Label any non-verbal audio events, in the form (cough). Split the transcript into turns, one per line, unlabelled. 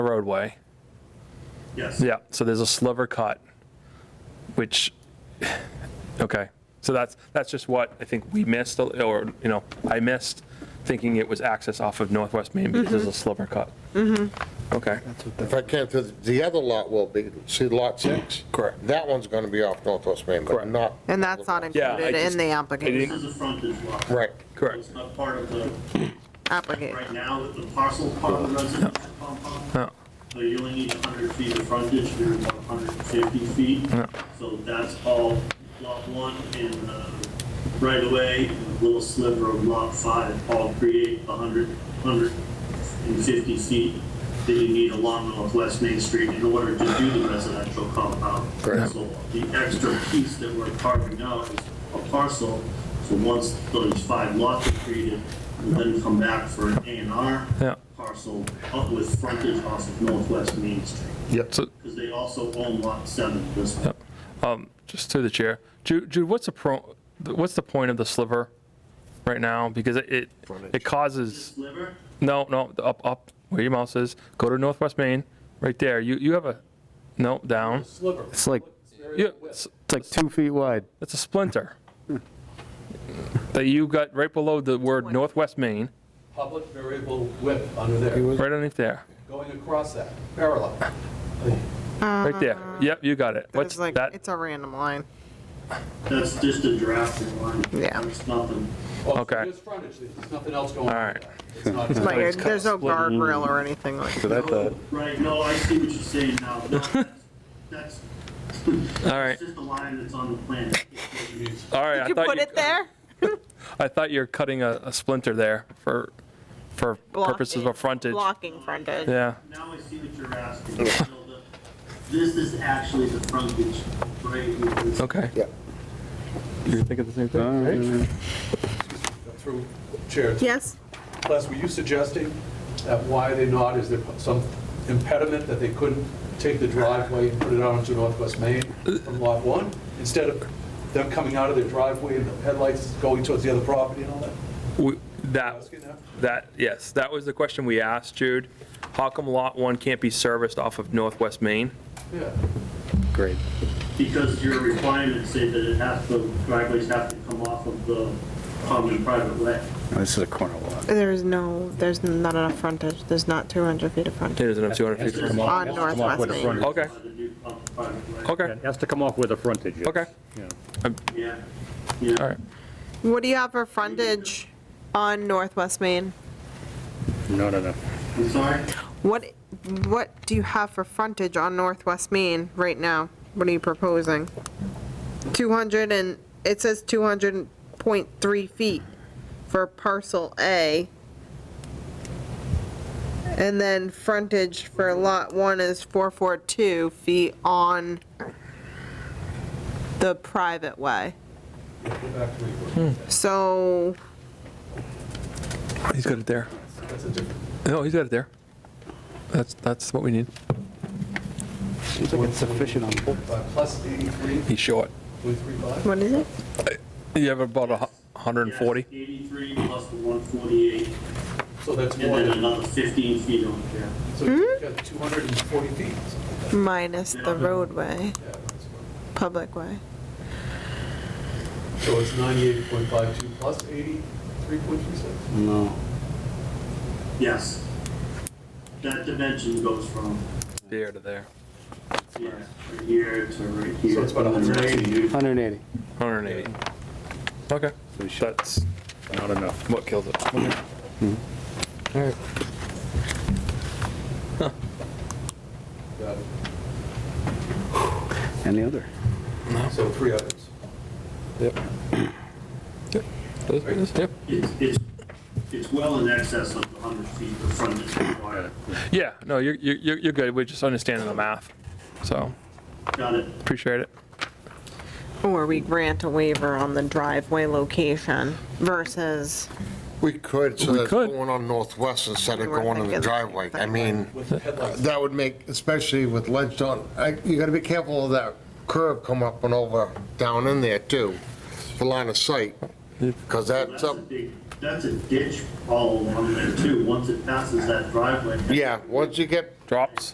the roadway.
Yes.
Yeah, so there's a sliver cut, which, (sighs) okay, so that's, that's just what I think we missed, or, you know, I missed, thinking it was access off of Northwest Main because there's a sliver cut. Mm-hmm. Okay,
If I can, the- the other lot will be, see lot six?
Correct.
That one's going to be off Northwest Main, but
Correct.
not.
And that's not
Yeah, I
included
just-
in the
I
This
application,
is a frontage lot.
Right.
Correct.
It's not part of the, right
application.
now, the parcel part of the residential compound.
No.
So you only need 100 feet of frontage, you're about 150 feet. So that's all lot one and uh, right away, and a little sliver of lot five, all create 100, 150 feet that you need along Northwest Main Street in order to do the residential compound.
Correct.
So the extra piece that we're carving out is a parcel, so once those five lots are created, we'll then come back for an A
Yeah.
and R parcel up with frontage off of Northwest Main Street,
Yep.
so,
because they also own lot seven, this one.
just through the chair, Jude, Jude, what's the pro, what's the point of the sliver right now? Because it- it, it causes,
sliver.
no, no, up, up, where your mouse is, go to Northwest Main, right there, you, you have a, no, down.
It's like,
Yeah, it's-
it's like two feet wide.
That's a splinter. That you got right below the word Northwest Maine,
public variable width under there,
right underneath there,
going across that, parallel.
right there. Yep, you got it. What's
It's Uh-huh. like,
that?
it's a random line.
That's just a drafting line.
Yeah.
That's nothing.
Well,
Okay.
There's frontage, there's nothing else going on.
All right.
It's not-
Like, there's no
mm.
guardrail or anything like that.
Right, no, I see what you're saying
(laughs)
now. No, That's, that's
All
(laughs)
right,
that's just a line that's on the
(laughs)
plan.
all right. I
Did you
thought
put it there?
I thought you were cutting a, a splinter there for, for purposes
Blocking-
of frontage.
Blocking frontage.
Yeah,
Now I see what you're asking. So the- This is actually the frontage, right? here. This-
okay.
Yeah.
You're thinking the same
Uh,
thing?
Through chair,
Yes,
Les, were you suggesting that why they not, is there some impediment that they couldn't take the driveway and put it out onto Northwest Main from lot one? Instead of them coming out of their driveway and the headlights going towards the other property and all that?
We- That,
Asking that?
that, yes, that was the question we asked Jude. How come Lot 1 can't be serviced off of Northwest Main?
Yeah.
Great.
Because your requirements say that it has to, driveways have to come off of the common private way.
This is a corner lot.
there's no, there's not enough frontage. There's not 200 feet of
It
frontage
isn't a 250.
Come
on Northwest Main.
Okay,
By the new common private way.
okay,
It has to come off with a frontage. yes.
okay,
Yeah.
Yeah, yeah.
all right.
What do you have for frontage on Northwest Main?
Not enough.
I'm sorry?
What, what do you have for frontage on Northwest Main right now? What are you proposing? 200 and, it says 200.3 feet for parcel A. And then frontage for lot 1 is 442 feet on the private way.
Go back to where you were.
Hmm.
So,
He's got it there.
That's a different.
No, he's got it there. That's, that's what we need.
Seems like it's sufficient on both.
Uh, Plus 83,
He's short.
335?
what is it?
You have about a hu- hundred and
Yes,
forty?
83 plus the 148,
So that's
and
more
then
than,
another 15 feet on here.
so you've got 240 feet.
Minus the roadway,
Yeah, that's what-
public way.
So it's 98.52 plus 83.36?
No.
Yes. That dimension goes from,
There to there.
yeah, right here to right here.
So it's about 180.
180.
Hundred and eighty. Okay. That's
Not enough.
what kills it.
Got it.
And the other.
So three others.
Yep. Yep. Yep.
It's, it's, it's well in excess of the 100 feet of frontage required.
Yeah, no, you're, you're, you're good. We're just understanding the math. So
Got it?
appreciate it.
Or we grant a waiver on the driveway location versus,
We could, so
We
that's
could.
going on Northwest instead of
We were
going on the
thinking-
driveway. I mean,
With the headlights,
that would make, especially with ledge on, I- you got to be careful of that curve come up and over, down in there too, for line of sight, because that's
That's a
up,
big, that's a ditch all along there too, once it passes that driveway.
yeah, once you get
drops.